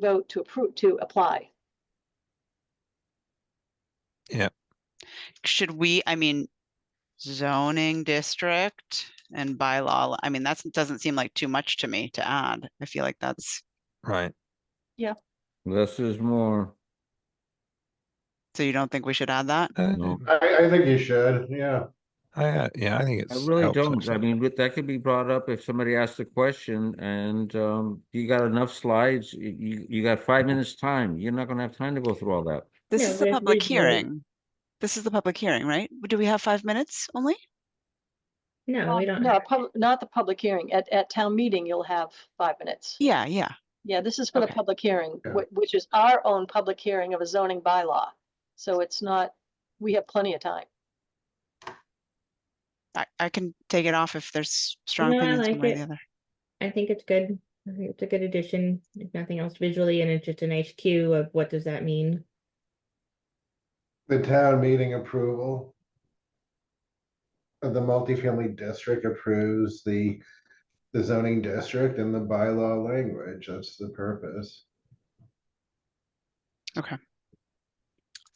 vote to approve, to apply. should we, I mean, zoning district and bylaw, I mean, that's, doesn't seem like too much to me to add. I feel like that's, Right. Less is more. so you don't think we should add that? Uh, No. I, I think you should, yeah. I, uh, yeah, I think I it's. really helps don't. also. I mean, but that could be brought up if somebody asks a question and um, you got enough slides, you- you, you got five minutes time. You're not gonna have time to go through all that. This Yeah, is the we- public we've made it- hearing. This is the public hearing, right? Do we have five minutes only? No, we don't. No, have- pub- not the public hearing. At, at town meeting, you'll have five minutes. Yeah, yeah. Yeah, this is for the Okay. public hearing, Yeah. wh- which is our own public hearing of a zoning bylaw. So it's not, we have plenty of time. I, I can take it off if there's strong No, I opinions one like way or it. the other. I think it's good. I think it's a good addition, if nothing else visually, and it's just a nice cue of what does that mean? The town meeting approval. of The multifamily district approves the, the zoning district and the bylaw language, that's the purpose.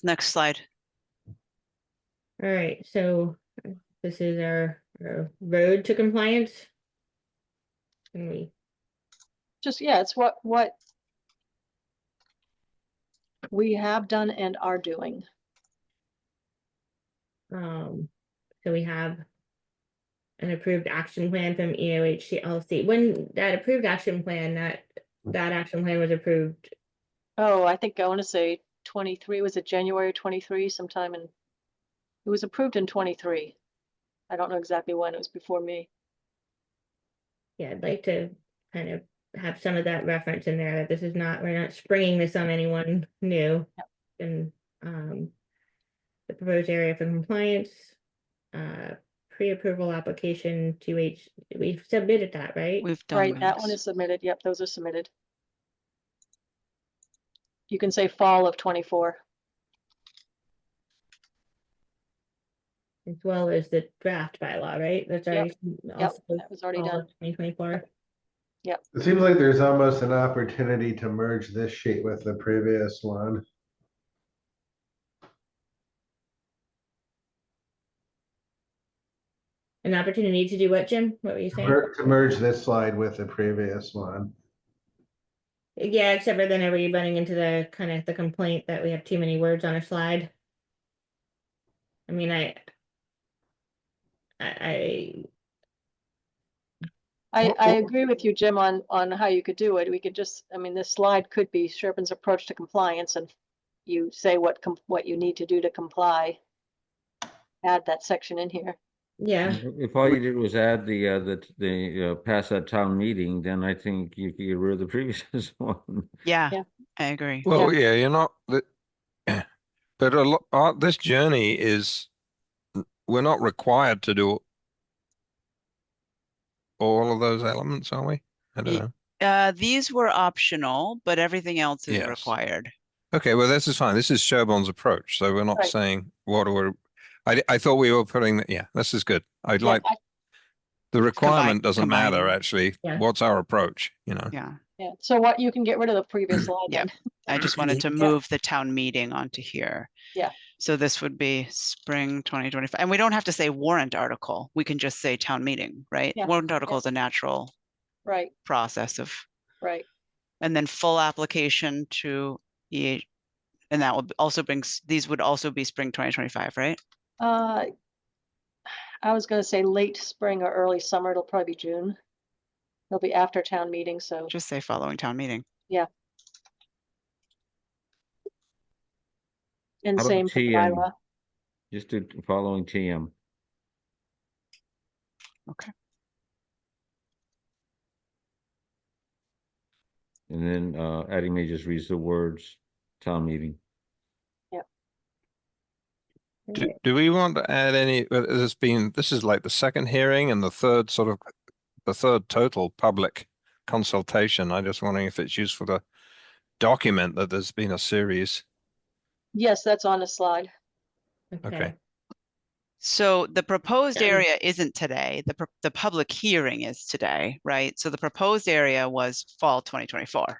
Next slide. All right, so uh, this is our, our road to compliance. And we, Just, yeah, it's what, what we have done and are doing. um, so we have an approved action plan from E EOHCLC. When that approved action plan, that, that action plan was approved Oh, I think I want to say twenty-three, was it January twenty-three sometime in, it was approved in twenty-three. I don't know exactly when, it was before me. Yeah, I'd like to kind of have some of that reference in there, that this is not, we're not springing this on anyone new. And, um, the proposed area for compliance, uh, pre-approval application to H, we've submitted that, right? We've done. Right, that one this. is submitted, yep, those are submitted. You can say fall of twenty-four. As well as the draft bylaw, right? That's Yep, already. Yep, that was already done. Twenty twenty-four, It seems like there's almost an opportunity to merge this sheet with the previous one. an opportunity to do what, Jim? What were you saying? Mer- To merge this slide with the previous one. Yeah, except for then are we running into the kind of the complaint that we have too many words on a slide? I mean, I. I, I, Wh- I wh- agree with you, Jim, on, on how you could do it. We could just, I mean, this slide could be Sherpin's approach to compliance and you say what, com- what you need to do to comply. Add that section in here. yeah, If all you did was add the, uh, the, the, uh, pass that town meeting, then I think you could get rid of the previous one. Yeah, Yeah. I agree. Well, yeah, you're not, the- but a lot, uh, this journey is, we're not required to do all of those elements, are we? I don't Ye- know. Uh, these were optional, but everything else is Yes. required. Okay, well, this is fine. This is Sherbon's approach, so we're not Right. saying what we're, I, I thought we were putting, the- yeah, this is good. I'd Yeah, like, I- the requirement doesn't matter, combining. actually. Yeah. What's our approach, you know? Yeah, Yeah, so what, you can get rid of the previous slide Yeah. then. I just wanted to Yeah. move the town meeting onto here. Yeah. So this would be spring twenty twenty-five, and we don't have to say warrant article. We can just say town meeting, right? Yeah, Warrant article is a natural Right, process of, right. and then full application to EA. And that will also brings, these would also be spring twenty twenty-five, right? Uh, I was gonna say late spring or early summer, it'll probably be June. It'll be after town meeting, so, Just say following town meeting. and How about same for the TM? bylaw. Just do following TM. Okay. And then, uh, Addie may just reads the words, town meeting. Do, do we want to add any, uh, there's been, this is like the second hearing and the third sort of, the third total public consultation. I'm just wondering if it's useful to document that there's been a series. Yes, that's on the slide. okay. So the proposed Yeah. area isn't today, the, pro- the public hearing is today, right? So the proposed area was fall twenty twenty-four.